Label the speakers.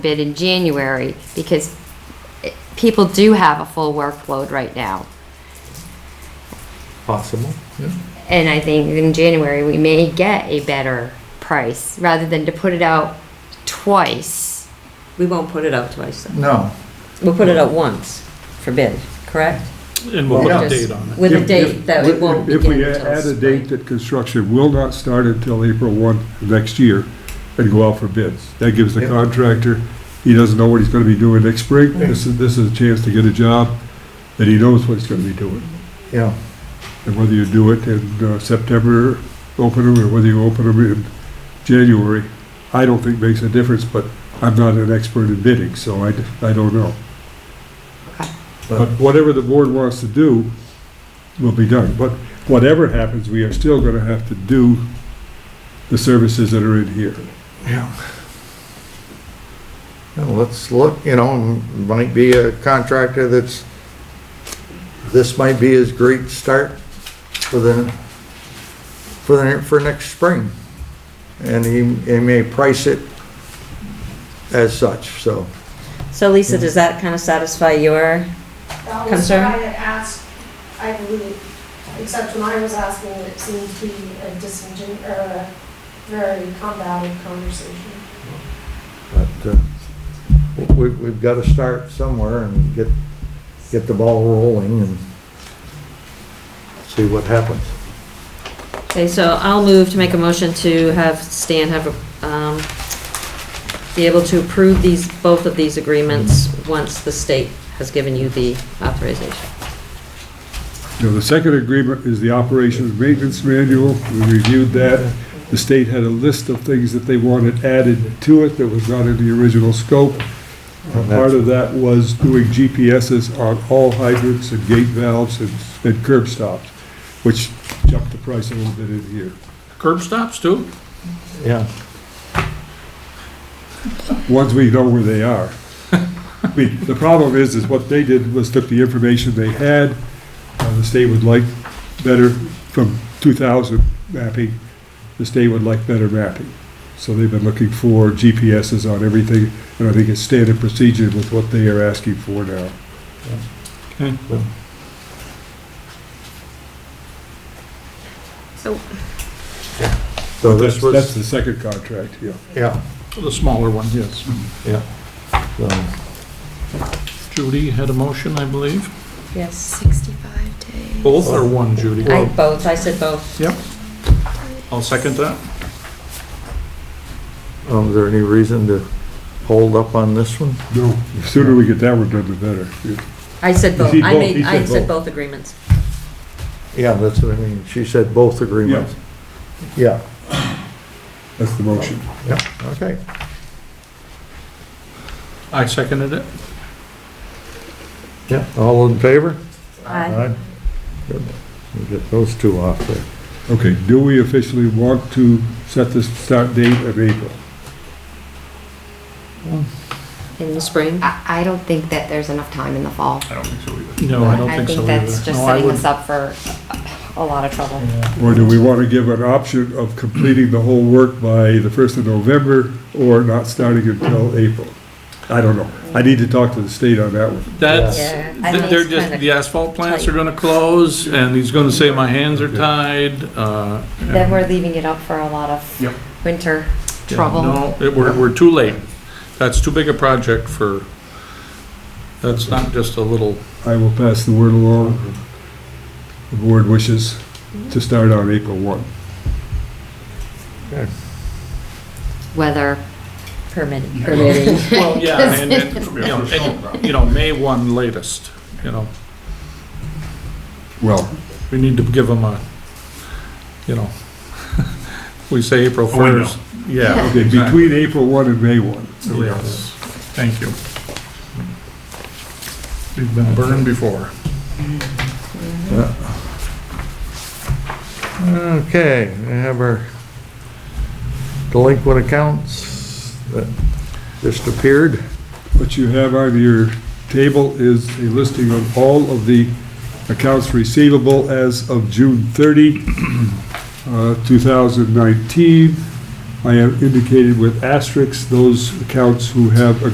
Speaker 1: bid in January because it- people do have a full workload right now.
Speaker 2: Possible.
Speaker 1: And I think in January, we may get a better price rather than to put it out twice.
Speaker 3: We won't put it out twice, though.
Speaker 4: No.
Speaker 3: We'll put it out once for bid, correct?
Speaker 2: And we'll put
Speaker 4: Yeah.
Speaker 2: a date on it.
Speaker 3: With a
Speaker 5: If-
Speaker 3: date that it
Speaker 5: if-
Speaker 3: won't
Speaker 5: If
Speaker 3: begin
Speaker 5: we
Speaker 3: until
Speaker 5: add a
Speaker 3: spring.
Speaker 5: date that construction will not start until April 1 next year and go out for bids, that gives the
Speaker 4: Yep.
Speaker 5: contractor, he doesn't know what he's going to be doing next spring. This is, this is a chance to get a job that he knows what he's going to be doing.
Speaker 4: Yeah,
Speaker 5: And whether you do it in uh, September, open them, or whether you open them in January, I don't think makes a difference, but I'm not an expert in bidding, so I, d- I don't know. But
Speaker 4: but,
Speaker 5: whatever the board wants to do will be done. But whatever happens, we are still going to have to do the services that are in here.
Speaker 4: yeah. Now, let's look, you know, might be a contractor that's, this might be his great start for the, for the, for next spring. And he, he may price it as such, so.
Speaker 3: So Lisa, does that kind of satisfy your,
Speaker 6: That was what
Speaker 3: Concern?
Speaker 6: I had asked, I believe, except when I was asking, it seemed to be a disingen, or a very combative conversation.
Speaker 4: But uh, we, we've got to start somewhere and get, get the ball rolling and see what happens.
Speaker 3: okay, so I'll move to make a motion to have Stan have, a um, be able to approve these, both of these agreements once the state has given you the authorization.
Speaker 5: You know, the second agreement is the operations maintenance manual. We reviewed that. The state had a list of things that they wanted added to it that was not in the original scope. Uh, Part of that was doing GPSs on all hydrants and gate valves and and curb stops, which jumped the price a little bit in here.
Speaker 2: Curb stops too?
Speaker 4: Yeah.
Speaker 5: once we know where they are. I mean, the problem is, is what they did was took the information they had, uh, the state would like better from 2000 mapping, the state would like better mapping. So they've been looking for GPSs on everything, and I think it's standard procedure with what they are asking for now.
Speaker 3: So,
Speaker 4: So this
Speaker 5: That's
Speaker 4: was,
Speaker 5: the second contract, yeah.
Speaker 4: yeah,
Speaker 2: The smaller one, yes.
Speaker 4: yeah. So,
Speaker 2: Judy had a motion, I believe.
Speaker 3: yes,
Speaker 7: 65 days.
Speaker 2: Both or one, Judy?
Speaker 3: I both, I said both.
Speaker 2: Yep. I'll second that.
Speaker 4: um, Is there any reason to hold up on this one?
Speaker 5: No, the sooner we get that one done, the better. Yeah.
Speaker 3: I said both,
Speaker 5: He
Speaker 3: I
Speaker 5: both,
Speaker 3: made,
Speaker 5: he
Speaker 3: I
Speaker 5: said
Speaker 3: said
Speaker 5: both.
Speaker 3: both agreements.
Speaker 4: Yeah, that's what I mean. She said both agreements. Yeah,
Speaker 5: That's the motion.
Speaker 4: yeah, okay.
Speaker 2: I seconded it.
Speaker 4: Yeah, all in favor?
Speaker 3: Aye.
Speaker 4: Good. We'll get those two off there.
Speaker 5: Okay, do we officially want to set the start date of April?
Speaker 3: In the spring,
Speaker 1: I, I don't think that there's enough time in the fall.
Speaker 2: No, I don't think so either.
Speaker 1: that's just
Speaker 2: No, I
Speaker 1: setting
Speaker 2: would-
Speaker 1: us up for a lot of trouble.
Speaker 5: Or do we want to give an option of completing the whole work by the first of November or not starting until April? I don't know. I need to talk to the state on that one.
Speaker 2: That's,
Speaker 3: Yeah. Yeah.
Speaker 2: th- they're just, the asphalt plants are gonna close, and he's gonna say my hands are tied, uh.
Speaker 1: Then we're leaving it up for a lot
Speaker 2: Yep.
Speaker 1: of winter
Speaker 2: Yeah,
Speaker 1: trouble.
Speaker 2: No, it- we're, we're too late. That's too big a project for, that's not just a little,
Speaker 5: I will pass the word along. The board wishes to start on April one.
Speaker 1: Weather
Speaker 3: permitting.
Speaker 1: permitting.
Speaker 2: well, yeah, and, and, you know, and, you know, May one latest, you know.
Speaker 5: Well,
Speaker 2: We need to give them a, you know, we say April
Speaker 8: A window.
Speaker 2: first. Yeah.
Speaker 5: okay,
Speaker 2: exactly.
Speaker 5: between April one and May one.
Speaker 2: Yes. Thank you. We've been burned before.
Speaker 4: Okay, we have our delinquent accounts that just appeared.
Speaker 5: What you have on your table is a listing of all of the accounts receivable as of June 30, uh, 2019. I have indicated with asterisks those accounts who have a